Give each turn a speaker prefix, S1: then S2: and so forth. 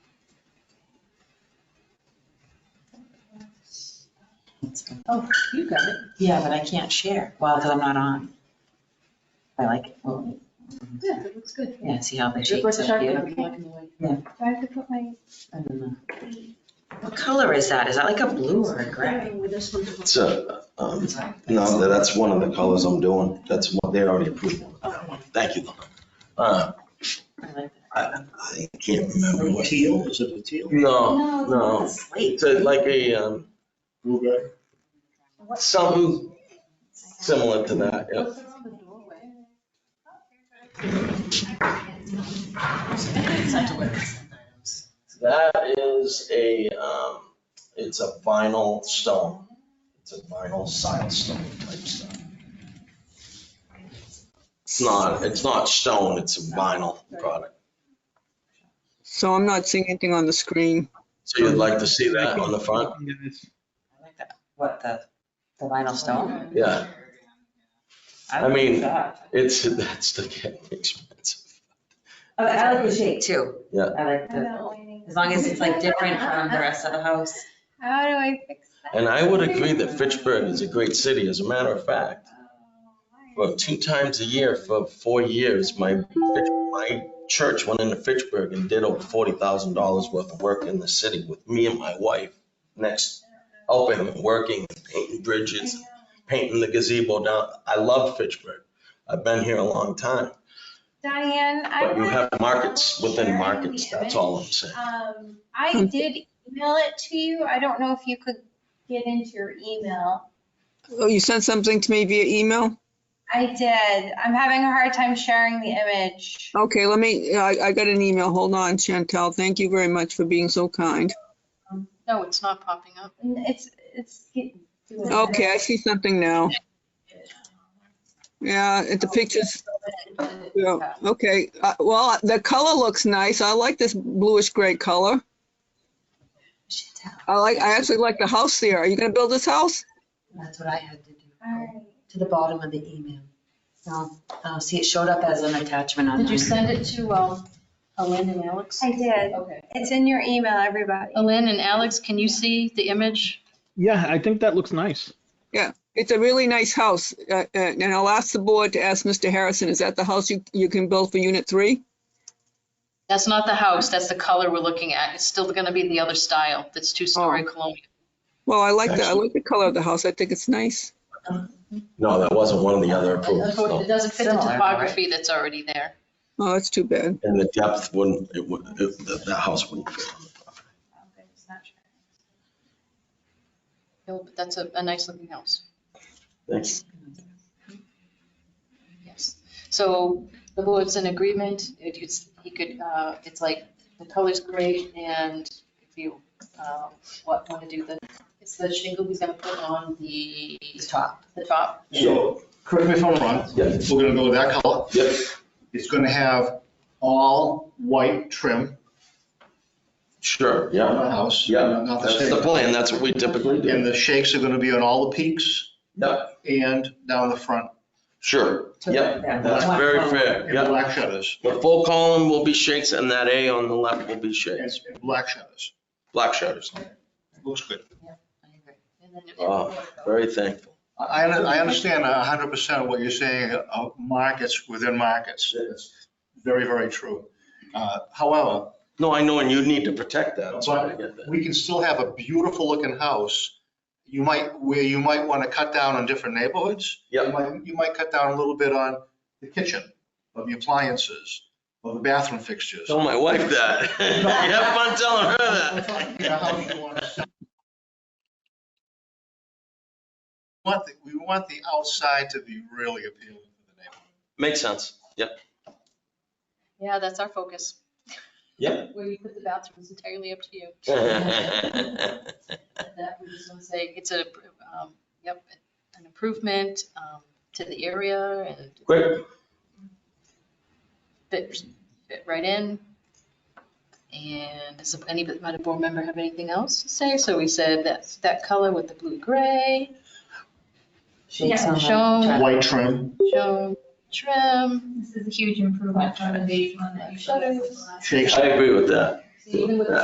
S1: Oh, you got it.
S2: Yeah, but I can't share. Well, because I'm not on. I like it. Well,
S1: Yeah, that looks good.
S2: yeah, see how the
S1: It
S2: shapes
S1: looks
S2: are
S1: sharp,
S2: cute.
S1: but black and white.
S3: Do I have to put my,
S2: I don't know. What color is that? Is that like a blue or a gray?
S1: Starting with this one.
S4: It's a, um, no, tha- that's one of the colors I'm doing. That's one, they already approved one. Thank you. Uh,
S2: I like that.
S4: I can't remember what.
S5: Teal, is it a teal?
S4: No,
S3: no,
S4: no.
S2: It's slate.
S4: it's a- like a, um,
S5: Blueberry?
S4: something similar to that, yeah.
S1: What's on the doorway?
S4: That is a, um, it's a vinyl stone. It's a vinyl silestone type stone. It's not, it's not stone, it's a vinyl product.
S6: So I'm not seeing anything on the screen.
S4: So you'd like to see that on the front?
S2: I like that. What, the, the vinyl stone?
S4: Yeah, I
S2: like
S4: mean-
S2: that.
S4: it's, that's the getting expensive.
S2: I like- I like Oh, the shape too.
S4: Yeah.
S2: I like
S3: I'm
S2: the,
S3: not waiting.
S2: as long as it's like different from the rest of the house.
S3: How do I fix that?
S4: And I would agree that Fitchburg is a great city. As a matter of
S3: oh,
S4: fact, well, two times a year for four years, my, Fitch- my church went into Fitchburg and did over forty thousand dollars worth of work in the city with me and my wife next, helping and working, painting bridges, painting the gazebo down. I love Fitchburg. I've been here a long time,
S3: Diane, I.
S4: but you
S3: wanna-
S4: have markets
S3: Sharing
S4: within
S3: the
S4: markets. That's all I'm saying.
S3: image. Um,
S2: Hmm.
S3: I did email it to you. I don't know if you could get into your email.
S6: Oh, you sent something to me via email?
S3: I did. I'm having a hard time sharing the image.
S6: Okay, let me, I, I got an email. Hold on, Chantel. Thank you very much for being so kind.
S1: No, it's not popping up.
S3: It's, it's. getting-
S6: Okay, I see something now. Yeah, it- the pictures,
S3: Oh,
S6: yeah, okay. Uh, Well, the color looks nice. I like this bluish gray color. I like, I actually like the house there. Are you gonna build this house?
S2: That's what I had to do.
S3: All right.
S2: To the bottom of the email. No, oh, see, it showed up as an attachment on
S1: Did you
S2: mine.
S1: send it to, um, Elaine and Alex?
S3: I did.
S1: Okay.
S3: It's in your email,
S2: Oh,
S3: everybody.
S1: Elaine and Alex, can you see the image?
S7: Yeah, I think that looks nice.
S6: It's a really nice house, uh, uh, and I'll ask the board to ask Mr. Harrison, is that the house you, you can build for unit three?
S1: That's not the house, that's the color we're looking at. It's still gonna be the other style, that's two-story colonial.
S6: Well, I like the, I like the color of the house. I think it's nice.
S4: No, that wasn't one of the other approvals.
S1: It
S4: no.
S1: doesn't fit the
S2: Oh, Similar, right?
S1: topography that's already there.
S6: Oh, that's too bad.
S4: And the depth wouldn't, it would, it- that, that house wouldn't fit on the property.
S3: Okay, it's not sure.
S1: It'll- That's a, a nice looking house,
S4: Thank you.
S1: yes. So the board's in agreement, It- it's, he could, uh, it's like, the color's great, and if you, uh, what, wanna do the, it's the shingle he's gonna put on the,
S2: It's top.
S1: the top.
S5: So, correct me if I'm wrong,
S4: Yeah.
S5: we're gonna go with that color.
S4: Yep.
S5: It's gonna have all white trim
S4: Sure,
S5: on
S4: yeah,
S5: the house.
S4: yeah.
S5: Not the
S4: That's the
S5: shake.
S4: plan, that's what we typically do.
S5: And the shakes are gonna be on all the peaks
S4: Yep,
S5: and down the front.
S4: sure,
S2: To-
S4: yep,
S2: yeah,
S4: that's
S2: black
S4: very
S2: color.
S4: fair,
S5: And
S4: yep.
S5: black shutters.
S4: The full column will be shakes and that A on the left will be
S5: And
S4: shakes,
S5: and black shutters.
S4: black shutters.
S5: Looks good.
S1: I agree. And then-
S4: Wow, Very thankful.
S5: I, I understand a hundred percent what you're saying, uh, markets within markets. It's very, very true. Uh, However,
S4: No, I know, and you need to protect that, that's why I get that.
S5: we can still have a beautiful looking house. You might, where you might want to cut down on different neighborhoods. You
S4: Yep.
S5: might- You might cut down a little bit on the kitchen, of the appliances, of the bathroom fixtures.
S4: Tell my wife that. You have fun telling her that.
S5: You know, how you want to- We want the- We want the outside to be really appealing to the neighborhood.
S4: Makes sense, yep,
S1: Yeah, that's our focus.
S4: yep.
S1: Where you put the bathroom is entirely up to you. That we just want to say, it's a, um, yep, an improvement, um, to the area and
S4: Great,
S1: fit, fit right in. And does any, might a board member have anything else to say? So we said that's that color with the blue gray,
S2: Shapes on the
S1: shown.
S2: chart.
S5: White trim,
S1: shown trim.
S8: This is a huge improvement from the beige one that you showed us.
S5: shakes
S4: I agree with that.
S1: See, even with the